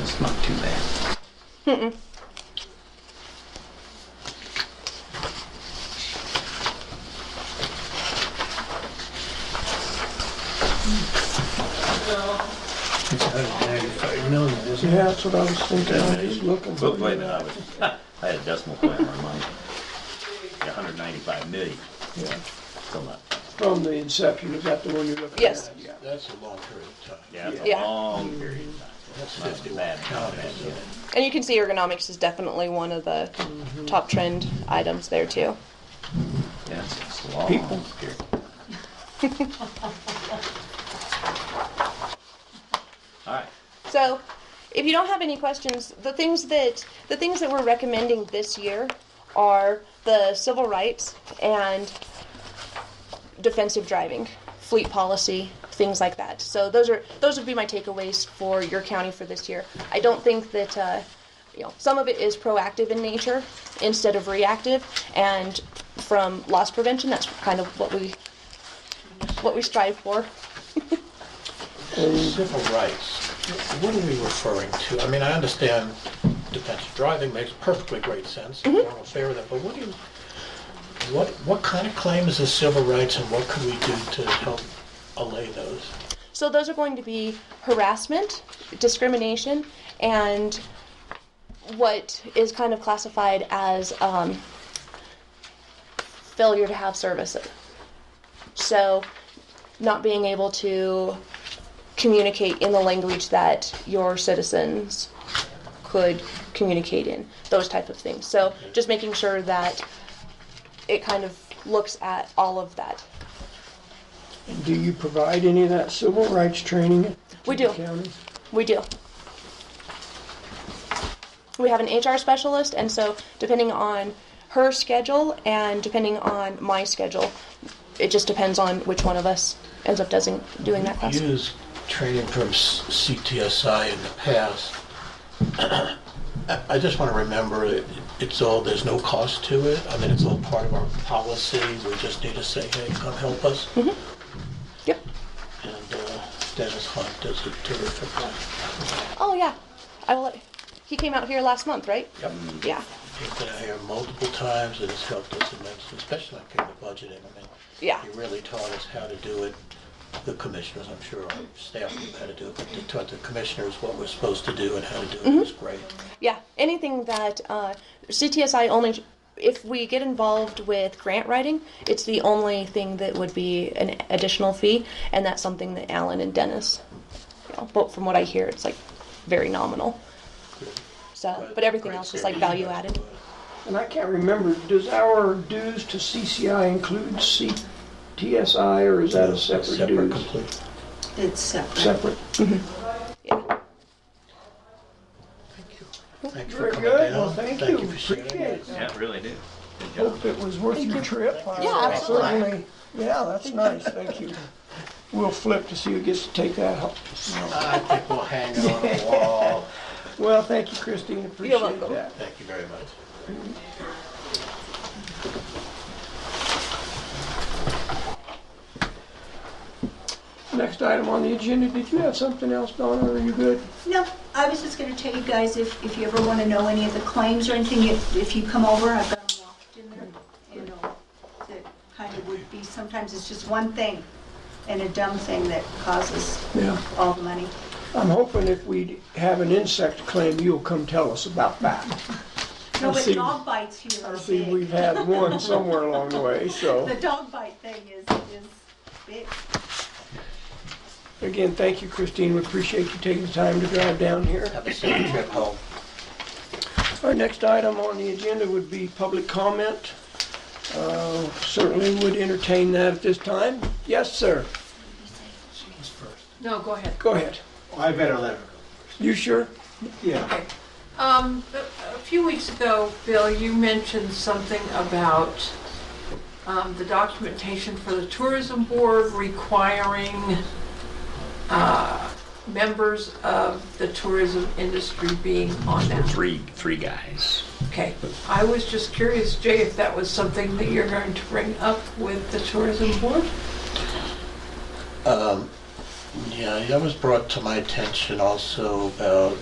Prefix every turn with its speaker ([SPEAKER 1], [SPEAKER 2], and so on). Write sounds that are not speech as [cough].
[SPEAKER 1] It's not too bad. It's a hundred and ninety-five million, isn't it?
[SPEAKER 2] Yeah, that's what I was thinking, I was just looking.
[SPEAKER 3] But wait, a minute, I was, I had a decimal point in my mind. hundred ninety-five million,
[SPEAKER 2] Yeah.
[SPEAKER 3] still not,
[SPEAKER 2] From the inception, is that the one you're looking at?
[SPEAKER 4] Yes.
[SPEAKER 2] Yeah.
[SPEAKER 1] That's a long period of time.
[SPEAKER 3] yeah, it's a
[SPEAKER 4] Yeah.
[SPEAKER 3] long period of time.
[SPEAKER 1] That's
[SPEAKER 3] Not
[SPEAKER 1] fifty-one
[SPEAKER 3] bad, not
[SPEAKER 1] counties,
[SPEAKER 3] bad,
[SPEAKER 1] isn't
[SPEAKER 3] yeah.
[SPEAKER 1] it?
[SPEAKER 4] And you can see ergonomics is definitely one of the top trend items there too.
[SPEAKER 3] Yeah, it's- it's a long
[SPEAKER 2] People.
[SPEAKER 3] period. [laughs] All right,
[SPEAKER 4] So, if you don't have any questions, the things that the things that we're recommending this year are the civil rights and defensive driving, fleet policy, things like that. So those are those would be my takeaways for your county for this year. I don't think that uh, you know some of it is proactive in nature instead of reactive, and from loss prevention, that's kind of what we what we strive for.
[SPEAKER 1] Civil rights, what are we referring to? I mean, I understand defensive driving makes perfectly great sense, and we're all fair with that, but what do you, what, what kind of claim is a civil rights and what could we do to help allay those?
[SPEAKER 4] So those are going to be harassment, discrimination, and what is kind of classified as um, failure to have services. So not being able to communicate in the language that your citizens could communicate in, those type of things. So just making sure that it kind of looks at all of that.
[SPEAKER 2] Do you provide any of that civil rights training? to
[SPEAKER 4] We
[SPEAKER 2] the
[SPEAKER 4] do.
[SPEAKER 2] county?
[SPEAKER 4] We do. We have an HR specialist, and so depending on her schedule and depending on my schedule, it just depends on which one of us ends up doing, doing that class.
[SPEAKER 1] Use training from s- CTSI in the past. I- I just want to remember, it- it's all, there's no cost to it. I mean, it's all part of our policy. We just need to say, hey, come help us.
[SPEAKER 4] Yep.
[SPEAKER 1] And uh, Dennis Hunt does a terrific job.
[SPEAKER 4] Oh yeah, I will. Let, he came out here last month, right?
[SPEAKER 1] Yep.
[SPEAKER 4] Yeah.
[SPEAKER 1] He's been out here multiple times and has helped us immensely, especially on getting the budget in. I mean,
[SPEAKER 4] Yeah.
[SPEAKER 1] He really taught us how to do it. The commissioners, I'm sure, our staff knew how to do it, but he taught the commissioners what we're supposed to do and how to do it. It was great.
[SPEAKER 4] Yeah, anything that uh, CTSI only. If we get involved with grant writing, it's the only thing that would be an additional fee, and that's something that Alan and Dennis. You know, but from what I hear, it's like very nominal. So, but everything
[SPEAKER 1] great
[SPEAKER 4] else is like
[SPEAKER 1] series.
[SPEAKER 4] value added.
[SPEAKER 2] And I can't remember, does our dues to CCI include CTSI, or is that a separate
[SPEAKER 1] Separate,
[SPEAKER 2] dues?
[SPEAKER 1] complete.
[SPEAKER 5] It's separate.
[SPEAKER 2] Separate.
[SPEAKER 4] Yeah.
[SPEAKER 1] Thanks for
[SPEAKER 2] Very
[SPEAKER 1] coming
[SPEAKER 2] good, well,
[SPEAKER 1] down.
[SPEAKER 2] thank you,
[SPEAKER 1] for sharing
[SPEAKER 2] appreciate it.
[SPEAKER 3] yeah, it really do. Good job.
[SPEAKER 2] Hope it was worth your trip. I
[SPEAKER 4] Yeah, absolutely.
[SPEAKER 2] certainly- Yeah, that's nice, thank you. We'll flip to see who gets to take that home.
[SPEAKER 1] I think we'll hang it on
[SPEAKER 2] [laughs]
[SPEAKER 1] the wall.
[SPEAKER 2] Well, thank you, Christine, appreciate
[SPEAKER 4] welcome.
[SPEAKER 2] that.
[SPEAKER 1] Thank you very much.
[SPEAKER 2] Next item on the agenda, did you have something else, Donna, or are you good?
[SPEAKER 5] No, I was just gonna tell you guys, if, if you ever wanna know any of the claims or anything, if, if you come over, I've got them locked in there. You know, that kind of would be, sometimes it's just one thing and a dumb thing that causes
[SPEAKER 2] Yeah.
[SPEAKER 5] all the money.
[SPEAKER 2] I'm hoping if we have an insect claim, you'll come tell us about that.
[SPEAKER 5] No,
[SPEAKER 2] I
[SPEAKER 5] but
[SPEAKER 2] see.
[SPEAKER 5] dog bites here
[SPEAKER 2] I
[SPEAKER 5] are
[SPEAKER 2] see
[SPEAKER 5] big.
[SPEAKER 2] we've had one somewhere along the way, so,
[SPEAKER 5] The dog bite thing is, is big.
[SPEAKER 2] again, thank you, Christine, we appreciate you taking the time to drive down here.
[SPEAKER 1] Have a safe trip home.
[SPEAKER 2] Our next item on the agenda would be public comment. Uh, Certainly would entertain that at this time. Yes, sir,
[SPEAKER 6] No, go ahead.
[SPEAKER 2] go ahead.
[SPEAKER 7] I better let her
[SPEAKER 2] You sure?
[SPEAKER 7] go. Yeah.
[SPEAKER 6] Um, a, a few weeks ago, Bill, you mentioned something about um, the documentation for the tourism board requiring uh, members of the tourism industry being on that.
[SPEAKER 3] Three, three guys.
[SPEAKER 6] Okay, I was just curious, Jay, if that was something that you're going to bring up with the tourism board?
[SPEAKER 1] Um, Yeah, that was brought to my attention also about